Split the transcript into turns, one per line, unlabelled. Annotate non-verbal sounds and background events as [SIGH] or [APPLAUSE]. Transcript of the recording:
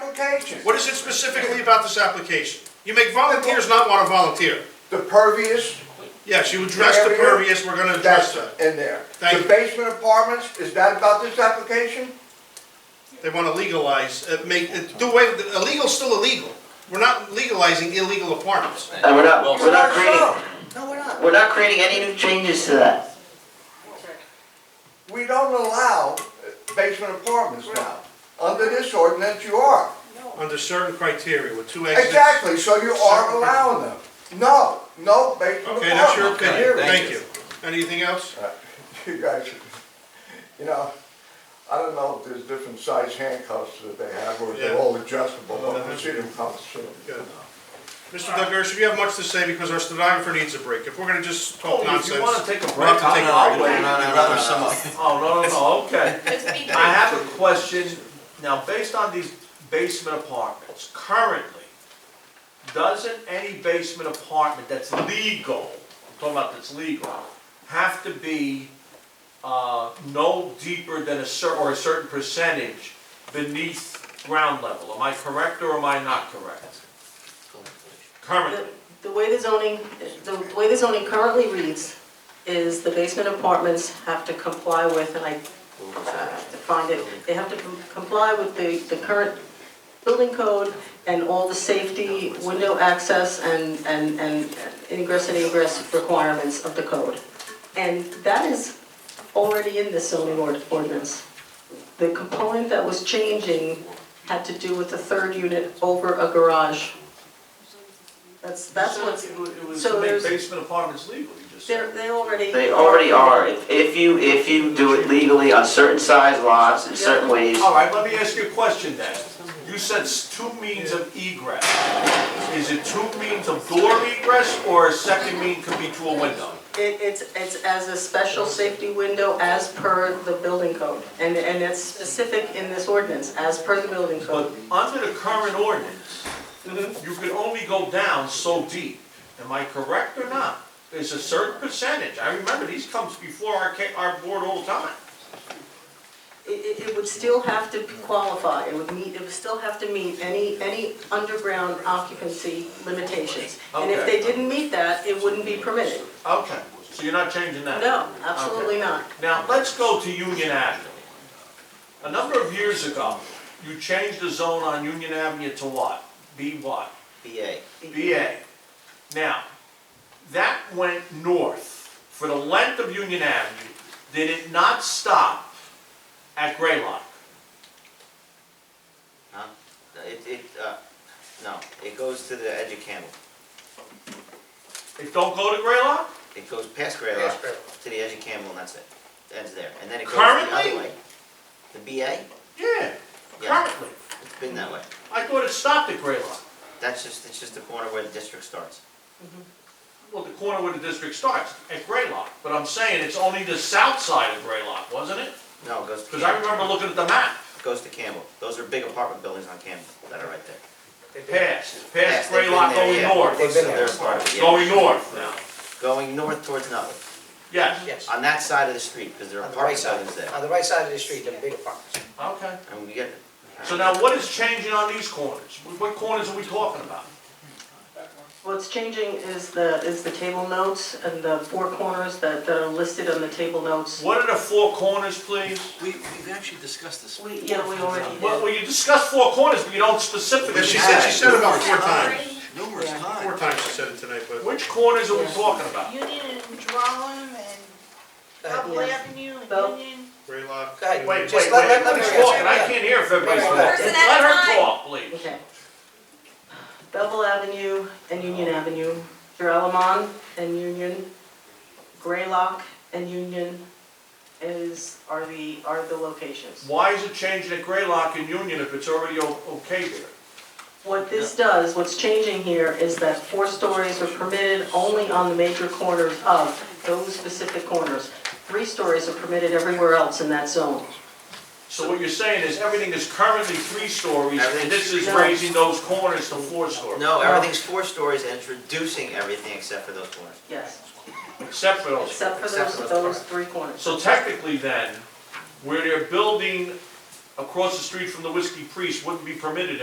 application.
What is it specifically about this application? You make volunteers not want to volunteer.
The pervious,
Yes, you address the
Area?
pervious, we're gonna address
that's
that.
in there.
Thank
The
you.
basement apartments, is that about this application?
They want to legalize, uh, make, uh, do away, with- illegal's still illegal. We're not legalizing illegal apartments.
And we're not, we're not
No,
creating,
No, we're not.
we're not creating any new changes to that.
We don't allow basement apartments now. Under this ordinance, you are.
Under certain criteria with two exits.
Exactly, so you are allowing them. No, no basement
Okay, that's your
apartments.
opinion,
Period.
thank you. Anything else?
[LAUGHS] You guys, you know, I don't know if there's different size handcuffs that they have, or if they're
Yeah.
all adjustable, but
Uh-huh.
we'll see them come soon.
Good. Mr. Delgersh, you have much to say because our stenographer needs a break. If we're gonna just talk
Oh, if
nonsense.
you wanna take a
we'll have
break,
to take a
I'll, I'll
break.
wait.
rather sum up.
[LAUGHS] Oh, no, no, no, okay.
Just be brief.
I have a question, now, based on these basement apartments, currently, doesn't any basement apartment that's legal, I'm talking about that's legal, have to be, uh, no deeper than a cer, or a certain percentage beneath ground level? Am I correct or am I not correct? Currently,
The way the zoning, the way the zoning currently reads is the basement apartments have to comply with, and I uh, defined it, they have to com- comply with the, the current building code and all the safety, window access, and, and, and ingress and egress requirements of the code. And that is already in the zoning ord- ordinance. The component that was changing had to do with the third unit over a garage. That's, that's what's,
It was- It was
so
to make
there's-
basement apartments legal, you just
they're,
said.
they already.
They already are, if, if you, if you do it legally on certain size lots, in certain ways,
All right, let me ask you a question then. You said s- two means of egress. Is it two means of door egress or a second mean could be through a window?
It, it's, it's as a special safety window as per the building code, and, and it's specific in this ordinance, as per the building
But
code.
under the current ordinance,
Mm-hmm.
you could only go down so deep. Am I correct or not? There's a certain percentage. I remember these comes before our, ca- our board all the time.
It, it, it would still have to qualify, it would meet, it would still have to meet any, any underground occupancy limitations. And if they
Okay.
didn't meet that, it wouldn't be permitted.
Okay, so you're not changing that?
No, absolutely not.
Now, let's go to Union Avenue. A number of years ago, you changed the zone on Union Avenue to what? B what?
BA.
BA. Now, that went north for the length of Union Avenue. Did it not stop at Graylock?
It, it, uh, no, it goes to the edge of Campbell.
It don't go to Graylock?
It goes past Graylock to the edge of Campbell and that's it. Ends there. And then it
goes the other Currently? way.
The BA,
Yeah, currently.
it's been that way.
I thought it stopped at Graylock.
That's just, it's just the corner where the district starts.
Well, the corner where the district starts, at Graylock. But I'm saying it's only the south side of Graylock, wasn't it?
No, it goes
Because I remember looking at the map.
goes to Campbell. Those are big apartment buildings on Campbell that are right there.
Past,
Yes,
past
they've been
Graylock
there,
going
yeah.
north,
So they're part of it, yeah.
going north now,
Going north towards Nutley,
yes,
Yes,
on that side of the street, because there are
on the right
apartment
side,
buildings there.
on the right side of the street, the big apartments.
okay.
And we get,
So now what is changing on these corners? What corners are we talking about?
What's changing is the, is the table notes and the four corners that, that are listed on the table notes.
What are the four corners, please?
We, we've actually discussed this.
We, yeah, we already did.
Well, well, you discussed four corners, but you don't specifically
But she said, she
say.
said about four times,
Numerous
four
times.
times she said it tonight, but.
Which corners are we talking about?
Union and Drown and Double
yes.
Avenue
Well-
and Union.
Graylock.
Go ahead.
Wait, wait,
Just
wait,
let- let- let her
who's
answer.
talking? I can't hear if everybody's
One
talking.
at
person
a
Let her
time.
talk, please.
Okay. Bevel Avenue and Union Avenue, Joralemon and Union, Graylock and Union is, are the, are the locations.
Why is it changing at Graylock and Union if it's already o- okay there?
What this does, what's changing here is that four stories are permitted only on the major corners of those specific corners. Three stories are permitted everywhere else in that zone.
So what you're saying is everything is currently three stories, and this is
Everything's-
raising those corners to four stories,
no, everything's four stories and it's reducing everything except for those corners.
Yes,
except for those.
except for
Except for
those,
those
those three corners.
So technically then, where they're building across the street from the Whiskey Priest wouldn't be permitted